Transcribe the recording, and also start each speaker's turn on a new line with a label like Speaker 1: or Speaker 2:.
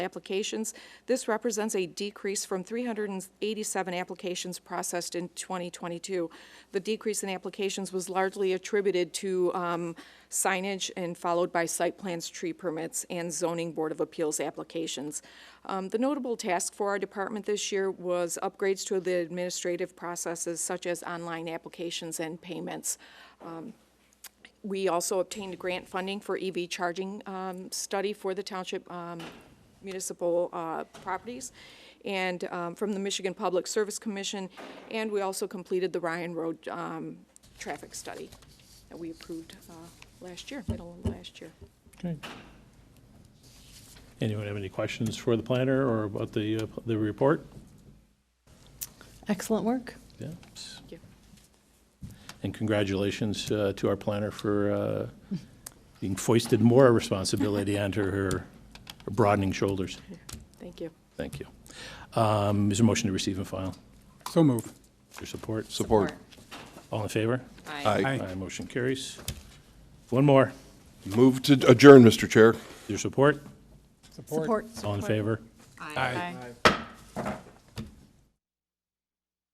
Speaker 1: applications. This represents a decrease from 387 applications processed in 2022. The decrease in applications was largely attributed to um, signage and followed by site plans, tree permits, and zoning board of appeals applications. Um, The notable task for our department this year was upgrades to the administrative processes such as online applications and payments. Um, We also obtained grant funding for EV charging um, study for the township um, municipal uh, properties and um, from the Michigan Public Service Commission. And we also completed the Ryan Road um, traffic study that we approved uh, last year, middle of last year.
Speaker 2: Okay. Anyone have any questions for the planner or about the, uh, the report?
Speaker 3: Excellent work.
Speaker 2: Yes.
Speaker 1: Thank you.
Speaker 2: And congratulations uh, to our planner for uh, being foisted more responsibility onto her broadening shoulders.
Speaker 1: Thank you.
Speaker 2: Thank you. Um, Is there a motion to receive and file?
Speaker 4: So move.
Speaker 2: Your support?
Speaker 5: Support.
Speaker 2: All in favor?
Speaker 1: Aye.
Speaker 4: Aye.
Speaker 2: Motion carries. One more.
Speaker 5: Move to adjourn, Mr. Chair.
Speaker 2: Your support?
Speaker 3: Support.
Speaker 2: All in favor?
Speaker 4: Aye.